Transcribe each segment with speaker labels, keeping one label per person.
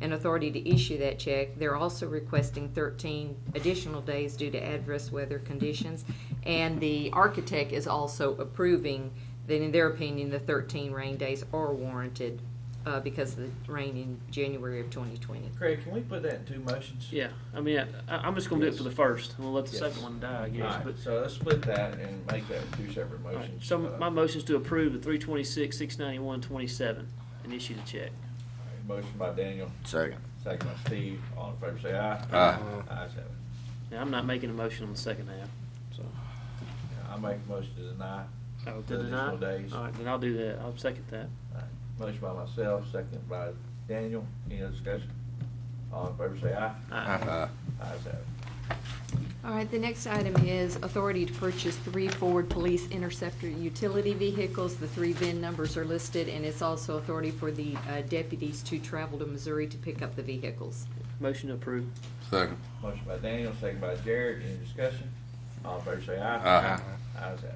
Speaker 1: and authority to issue that check. They're also requesting 13 additional days due to adverse weather conditions. And the architect is also approving that, in their opinion, the 13 rain days are warranted uh, because of the rain in January of 2020.
Speaker 2: Craig, can we put that in two motions?
Speaker 3: Yeah, I mean, I, I'm just gonna do it for the first, and we'll let the
Speaker 2: Yes.
Speaker 3: second one die, I
Speaker 2: All
Speaker 3: guess,
Speaker 2: right,
Speaker 3: but.
Speaker 2: so let's split that and make that two separate
Speaker 3: all right,
Speaker 2: motions.
Speaker 3: So
Speaker 2: Uh,
Speaker 3: my motion's to approve the three twenty-six, six ninety-one, twenty-seven, and issue the check.
Speaker 2: all right, Motion by Daniel,
Speaker 4: Second.
Speaker 2: second by Steve, all in favor say aye.
Speaker 4: Aye.
Speaker 2: Ayes have it.
Speaker 3: Now, I'm not making a motion on the second half, so.
Speaker 2: I make a motion to deny.
Speaker 3: Oh,
Speaker 2: The additional days.
Speaker 3: All right, then I'll do that, I'll second
Speaker 2: All
Speaker 3: that.
Speaker 2: right, Motion by myself, second by Daniel, any other discussion? All in favor say aye.
Speaker 3: All right.
Speaker 4: Uh,
Speaker 2: Ayes have it.
Speaker 1: All right, the next item is authority to purchase three Ford Police Interceptor utility vehicles. The three VIN numbers are listed, and it's also authority for the uh, deputies to travel to Missouri to pick up the vehicles.
Speaker 3: Motion to approve.
Speaker 4: Second.
Speaker 2: Motion by Daniel, second by Jared, any discussion? All in favor say aye.
Speaker 4: Aye.
Speaker 2: Ayes have it.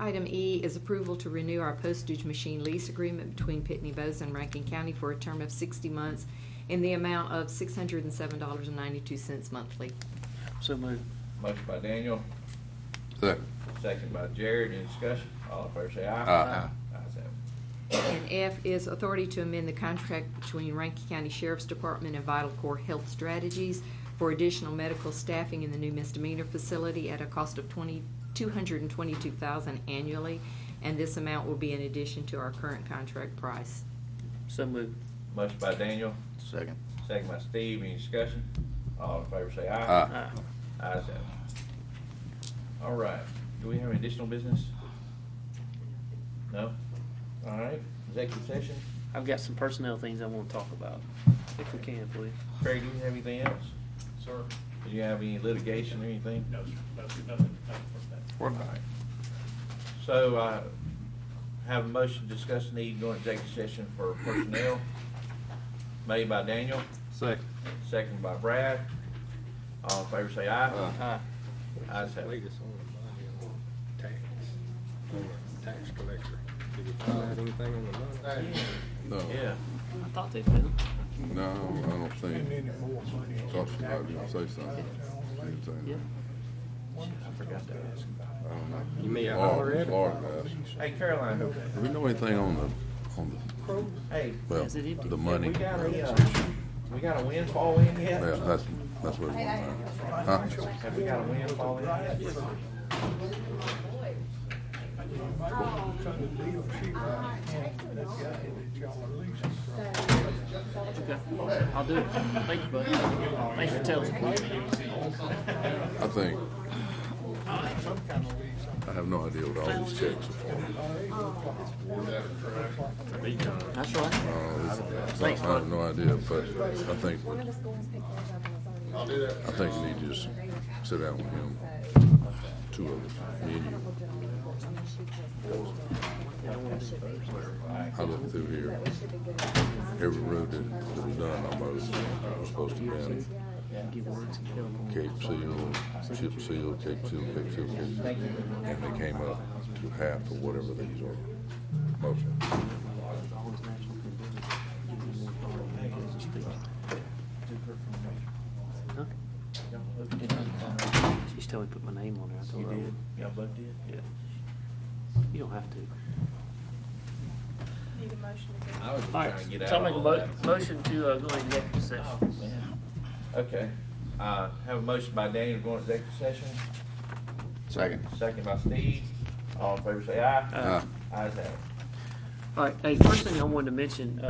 Speaker 1: Item E is approval to renew our postage machine lease agreement between Pitney Bowes and Rankin County for a term of 60 months in the amount of $607.92 monthly.
Speaker 3: So moved.
Speaker 2: Motion by Daniel,
Speaker 4: Second.
Speaker 2: second by Jared, any discussion? All in favor say aye.
Speaker 4: Aye.
Speaker 2: Ayes have it.
Speaker 1: And F is authority to amend the contract between Rankin County Sheriff's Department and Vital Core Health Strategies for additional medical staffing in the new misdemeanor facility at a cost of twenty, two hundred and twenty-two thousand annually. And this amount will be in addition to our current contract price.
Speaker 3: So moved.
Speaker 2: Motion by Daniel,
Speaker 4: Second.
Speaker 2: second by Steve, any discussion? All in favor say
Speaker 4: Aye.
Speaker 2: aye.
Speaker 3: All right.
Speaker 2: Ayes have it. All right, do we have any additional business? No? All right, executive session,
Speaker 3: I've got some personnel things I wanna talk about, if we can, please.
Speaker 2: Craig, do you have anything else?
Speaker 5: Sir?
Speaker 2: Do you have any litigation or anything?
Speaker 5: No, sir, no, sir, nothing, nothing for that.
Speaker 2: All right. So, uh, have a motion to discuss need during executive session for personnel, made by Daniel,
Speaker 4: Second.
Speaker 2: second by Brad. All in favor say aye.
Speaker 4: Aye.
Speaker 3: Aye.
Speaker 2: Ayes have it.
Speaker 6: Lead us on the money on tax, tax collector. Did you find out anything on the money?
Speaker 4: No.
Speaker 2: Yeah.
Speaker 3: I thought they'd been.
Speaker 4: No, I don't see him. Thought she might be gonna say something. She didn't say
Speaker 3: Yeah.
Speaker 4: anything.
Speaker 2: I forgot to ask.
Speaker 4: I don't know.
Speaker 6: You may have
Speaker 4: Laura-
Speaker 6: already.
Speaker 4: Laura asked.
Speaker 2: Hey, Caroline,
Speaker 4: Do we know anything on the, on the,
Speaker 2: hey,
Speaker 4: well,
Speaker 3: Is it empty?
Speaker 4: the
Speaker 2: have
Speaker 4: money?
Speaker 2: we got a,
Speaker 4: Yeah,
Speaker 2: uh, we got a windfall in yet?
Speaker 4: that's, that's what we want to know. Huh?
Speaker 2: Have we got a windfall in yet?
Speaker 3: Okay. I'll do it. Thank you, bud. Thanks for telling.
Speaker 4: I think. I have no idea what all these checks are
Speaker 3: That's all right.
Speaker 4: for. Uh, it's-
Speaker 3: Thanks,
Speaker 4: I
Speaker 3: bud.
Speaker 4: have no idea, but I think,
Speaker 7: One of us go and pick those up and I'll do
Speaker 4: I think you need to just sit down with him, two of us, me and you. I looked through here, every road that that was done almost was supposed to be in Cape Seal, Chip Seal, Cape Seal, Cape Seal, Cape Seal. And they came up to half of whatever these are, most of them.
Speaker 3: Huh? She's telling me to put my name on there. I told her I would.
Speaker 2: Y'all both did?
Speaker 3: Yeah. You don't have to.
Speaker 2: I was
Speaker 3: All
Speaker 2: trying to get
Speaker 3: right,
Speaker 2: out.
Speaker 3: so I'll make a
Speaker 2: on
Speaker 3: mo-
Speaker 2: that.
Speaker 3: motion to, uh, go into executive session.
Speaker 2: Okay, uh, have a motion by Daniel going to executive session,
Speaker 4: Second.
Speaker 2: second by Steve, all in favor say aye.
Speaker 4: Uh,
Speaker 2: Ayes have it.
Speaker 3: All right, hey, first thing I wanted to mention, uh,